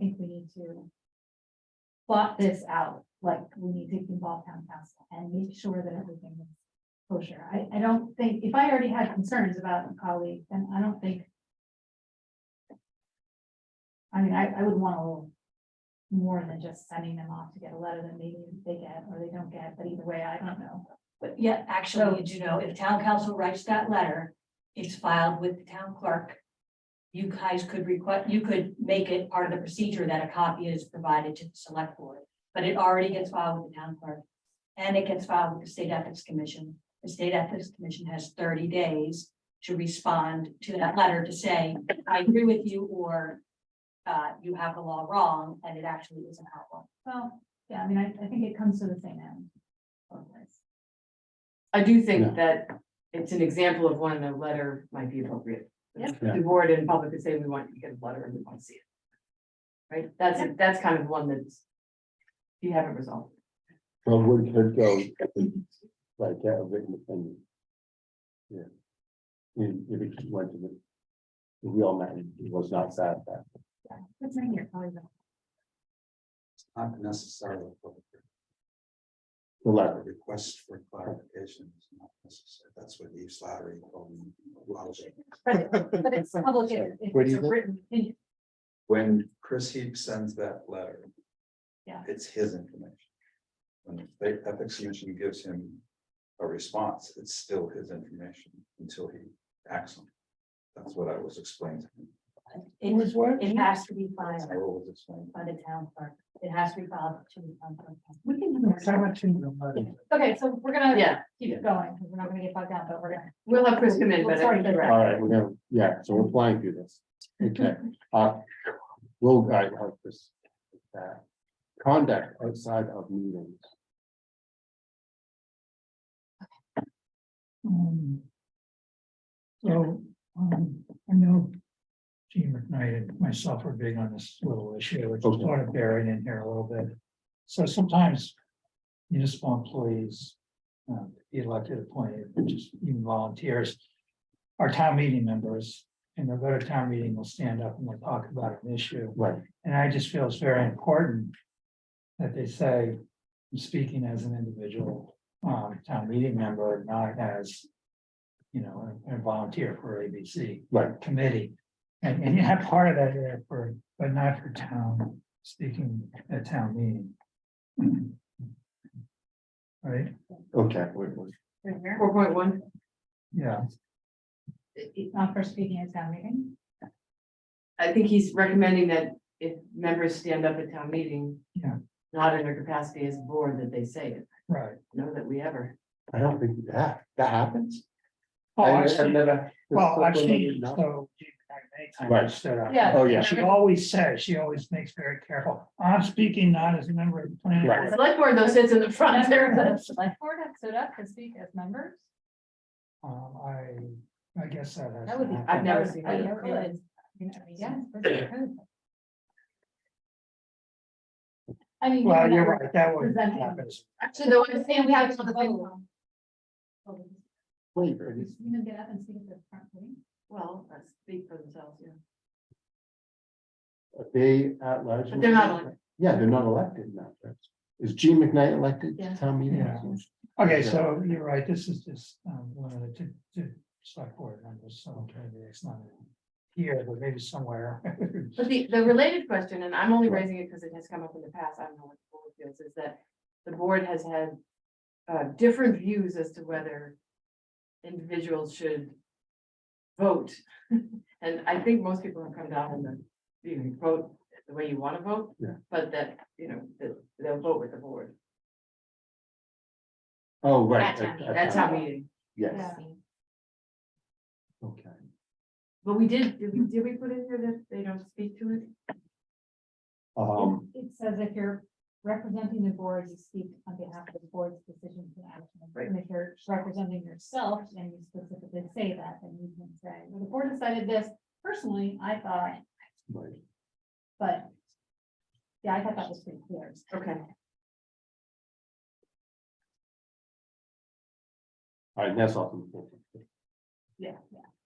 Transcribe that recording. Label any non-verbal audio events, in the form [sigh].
need to plot this out, like, we need to involve town council and make sure that everything is kosher. I, I don't think, if I already had concerns about a colleague, then I don't think I mean, I, I would want a little more than just sending them off to get a letter that maybe they get or they don't get, but either way, I don't know. But yeah, So- actually, you do know, if town council writes that letter, it's filed with the town clerk. You guys could request, you could make it part of the procedure that a copy is provided to the select board, but it already gets filed with the town clerk. And it gets filed with the state ethics commission. The state ethics commission has thirty days to respond to that letter to say, I agree with you, or uh, you have the law wrong, and it actually isn't outlawed. Well, yeah, I mean, I, I think it comes to the same end. both ways. I do Yeah. think that it's an example of when a letter might be appropriate. Yeah. Yeah. The board and public could say, we want you to get a letter and we want to see it. Right, that's, that's kind of one that's. You haven't resolved. Well, word could go, like, that written opinion. Yeah. And if it just went to the. The real man, it was not sad that. It's right here, probably. the- Not necessarily. a public hearing. The A letter, request for clarification is not necessary. That's what Eve Slattery called me. lousy. But it's public, if if What it's do you a think? written, opinion. When Chris Heap sends that letter. Yeah. It's his information. When the state ethics commission gives him a response, it's still his information until he acts on it. That's what I was explaining. to him. It was work. It has to be filed I always explain. by the town clerk. It has to be filed to the town clerk. we can do that. Okay, so we're gonna Yeah, keep going, because we're not gonna get bogged down, but we're gonna. we'll have Chris come in, but. I think you're right. all right, we're gonna, yeah, so we're flying through this, okay, uh, we'll guide how this. uh, Conduct outside of meetings, Um, So, um, I know Gene McKnight and myself are big on this little issue, which is Okay. sort of buried in here a little bit. So sometimes municipal employees, um, elected, appointed, just even volunteers, are town meeting members, and they'll go to town meeting, they'll stand up and they'll talk about an issue. right, And I just feel it's very important that they say, "I'm speaking as an individual, um, town meeting member, not as. You know, a a volunteer for ABC right, committee. And, and you have part of that there for, but not for town, speaking at town meeting. [clears throat] Right, okay, wait, wait, Right here. Four point one, yeah, Not for speaking at town [laughs] meeting. I think he's recommending that if members stand up at town meeting. Yeah. Not in their capacity as board that they say it, right. no, that we ever. I don't think that, that happens. Oh, I- I've actually, never- well, actually, No. so. I Right. stood up. Yeah. Oh, yeah. She always says, she always makes very careful, I'm speaking not as a member of the planning Right. board. Select board though sits in the front there, Members of the select board have stood up to speak as members. Um, I, I guess that has. That would be. I've never seen I that. never realized. I mean, yes. that's true. I mean. Well, given that you're we're- right, that would Presenting. happen. actually, though, I'm saying we have to vote. Oh, Wait, You gonna get up and speak at the front meeting? Well, that's speak for themselves, yeah. are they at large? But they're not elected. Yeah, they're not elected now. that's- Is Gene McKnight elected Yeah. to town meeting? Yeah. Okay, so you're right, this is just um, limited to, to select board members, so maybe it's not here, but maybe somewhere. [laughs] But the, the related question, and I'm only raising it because it has come up in the past, I don't know what the board feels, is that the board has had uh, different views as to whether individuals should vote. [laughs] And I think most people have come down on the, you can vote the way you want to vote. Yeah. But that, you know, that they'll vote with the board. Oh, right. At at- at That's town how we, Yes, okay. but we did, did we, did we put in here that they don't speak to it? Um, It says if you're representing the board, you speak on behalf of the board's decisions and actions. Right. And if you're representing yourself and you specifically say that, then you can say, well, the board decided this personally, I thought, right. but. Yeah, I thought that was pretty clear. Okay. All right, that's all. from the board. Yeah, yeah.